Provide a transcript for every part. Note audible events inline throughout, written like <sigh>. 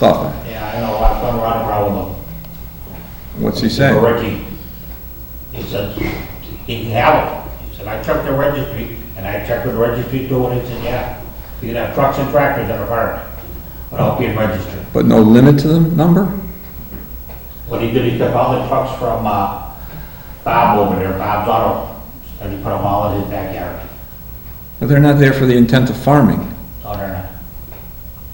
stuff. Yeah, I know, I've been running around with What's he him. saying? Ricky. He said, he can have it. He said, I checked the registry, and I checked with the registry too, and he said, yeah, you can have trucks and tractors in a park without being registered. But no limit to the number? What he did, he took all the trucks from, uh, Bob over there, Bob's Auto, and he put them all in his backyard, But they're not there for the intent of farming. down there.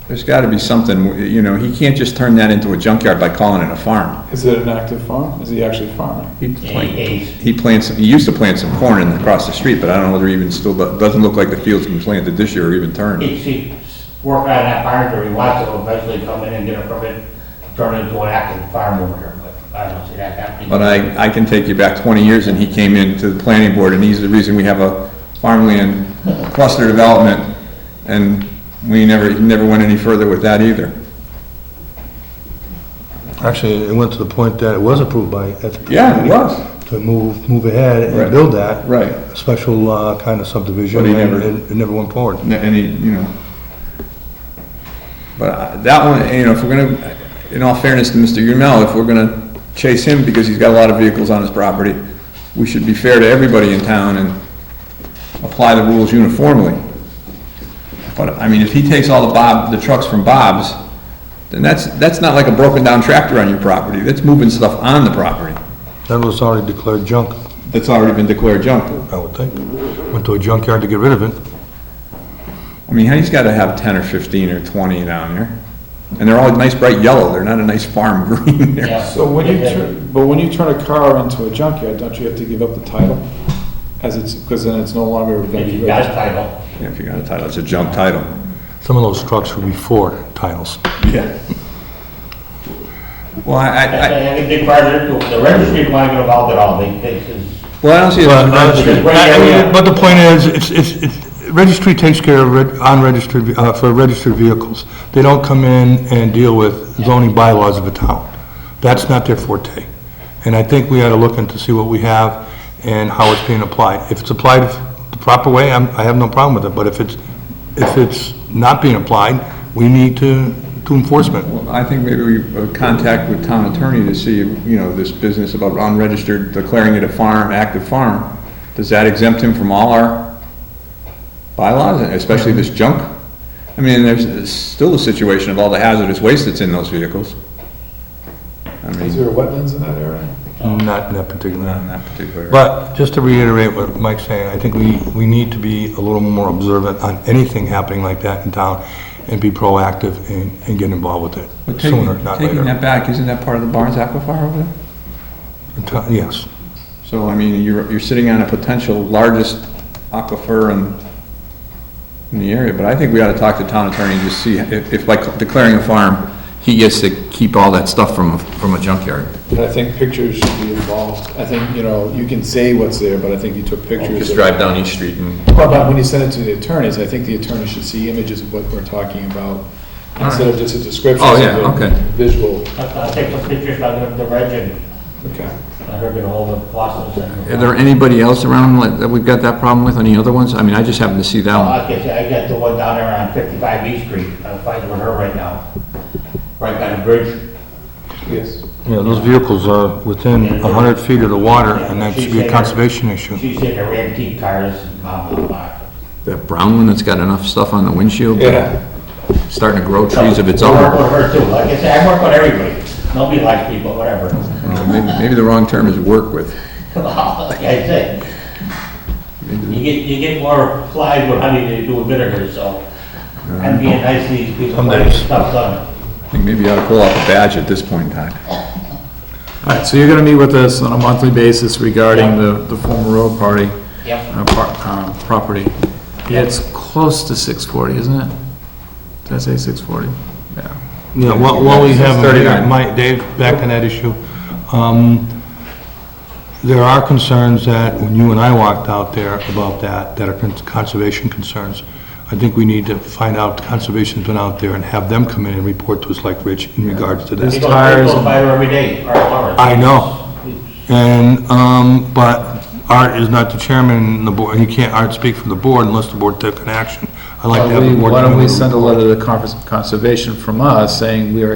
There's gotta be something, you know, he can't just turn that into a junkyard by calling it a farm. Is it an active farm? Is he actually farming? He Yeah, plant- he- he's, he plants, he used to plant some corn in, across the street, but I don't know whether even still, do- doesn't look like the field's been planted this year or even turned. he's, he's working on that barn, or he wants to eventually come in and get a permit, turn it into an active farm over there, but I don't see that happening. But I, I can take you back twenty years and he came in to the planning board and he's the reason we have a farmland cluster development. And we never, he never went any further with that either. Actually, it went to the point that it was approved by, at the. Yeah, it was, To move, move ahead Right. and build that. right. Special uh, kind of subdivision. But he and- never- and It never went forward. N- any, you know. But I- that one, you know, if we're gonna, in all fairness to Mr. Yumel, if we're gonna chase him because he's got a lot of vehicles on his property, we should be fair to everybody in town and apply the rules uniformly. But, I mean, if he takes all the Bob, the trucks from Bob's, then that's, that's not like a broken down tractor on your property, that's moving stuff on the property. That was already declared junk, That's already been declared junk. I would think. Went to a junkyard to get rid of it. I mean, he's gotta have ten or fifteen or twenty down there. And they're all nice bright yellow, they're not a nice farm <laughs> green there. Yeah. So when you, Yeah. tur- but when you turn a car into a junkyard, don't you have to give up the title? As it's, because then it's no longer gonna If be you got a registered. title, Yeah, If you got a title, it's a junk title. Some of those trucks were before titles. Yeah. Well, I, that's I, I- a big part of it, the registry is not involved at all, they, they, it's- well, I don't see it as a But registry. I- but the point is, it's, it's, it's- registry takes care of reg- unregistered, uh, for registered vehicles. They don't come in and deal with zoning bylaws of a town. That's not their forte. And I think we ought to look into see what we have and how it's being applied. If it's applied the proper way, I'm, I have no problem with it, but if it's, if it's not being applied, we need to, to enforcement. Well, I think maybe we uh, contact with town attorney to see, you know, this business about unregistered, declaring it a farm, active farm. Does that exempt him from all our bylaws, and especially this junk? I mean, there's it's still the situation of all the hazardous waste that's in those vehicles. I Is mean, there wetlands in that area? Not in that particular. not in that particular. But just to reiterate what Mike's saying, I think we, we need to be a little more observant on anything happening like that in town and be proactive and, and get involved with But it taking, sooner, not taking later. that back, isn't that part of the Barnes Aquifer over there? Until- Yes. So, I mean, you're, you're sitting on a potential largest aquifer in, in the area, but I think we ought to talk to town attorney and just see if, if by declaring a farm, he gets to keep all that stuff from, from a junkyard. And I think pictures should be involved. I think, you know, you can say what's there, but I think you took pictures. Just of- drive down East Street and, Well, But when you send it to the attorneys, I think the attorney should see images of what we're talking about instead of just a description. Oh, yeah, so the okay. Visual, I'll I'll take some pictures, I'll give it to Reg and okay. I'll give it all the process and. is there anybody else around like, that we've got that problem with, any other ones? I mean, I just happened to see that one. I guess, I got the one down there on fifty-five East Street, I'm fighting with her right now, right by the bridge. Yes. Yeah, those vehicles are within a hundred feet of the water and that should be a conservation issue. She's in her antique cars, blah, blah, blah. That brown one that's got enough stuff on the windshield, Yeah, starting to grow trees of its I work own. with her too, like I said, I work with everybody, nobody likes me, but whatever. Maybe, maybe the wrong term is work with. Like I said, you get, you get more flies with honey than you do with vinegar, so I'm being nice to these people, Some getting days. stuff done. I think maybe you ought to pull out the badge at this point in time. all right, so you're gonna meet with us on a monthly basis regarding the, the former road party, Yep. uh, par- uh, property. Yeah, it's close to six forty, isn't it? Did I say six forty? Yeah. Yeah, while, while we have, him here, 39. Mike, Dave, back on that issue, um, there are concerns that, when you and I walked out there about that, that are con- conservation concerns. I think we need to find out, conservation's been out there and have them come in and report to us like Rich in regards to that. It's People tires people and- buy her every day, or hours. I know. And, um, but Art is not the chairman, and the board, he can't, Art speak for the board unless the board took an action. I like to have the board. Why don't come in we and send a report. letter to the Conference of Conservation from us saying we are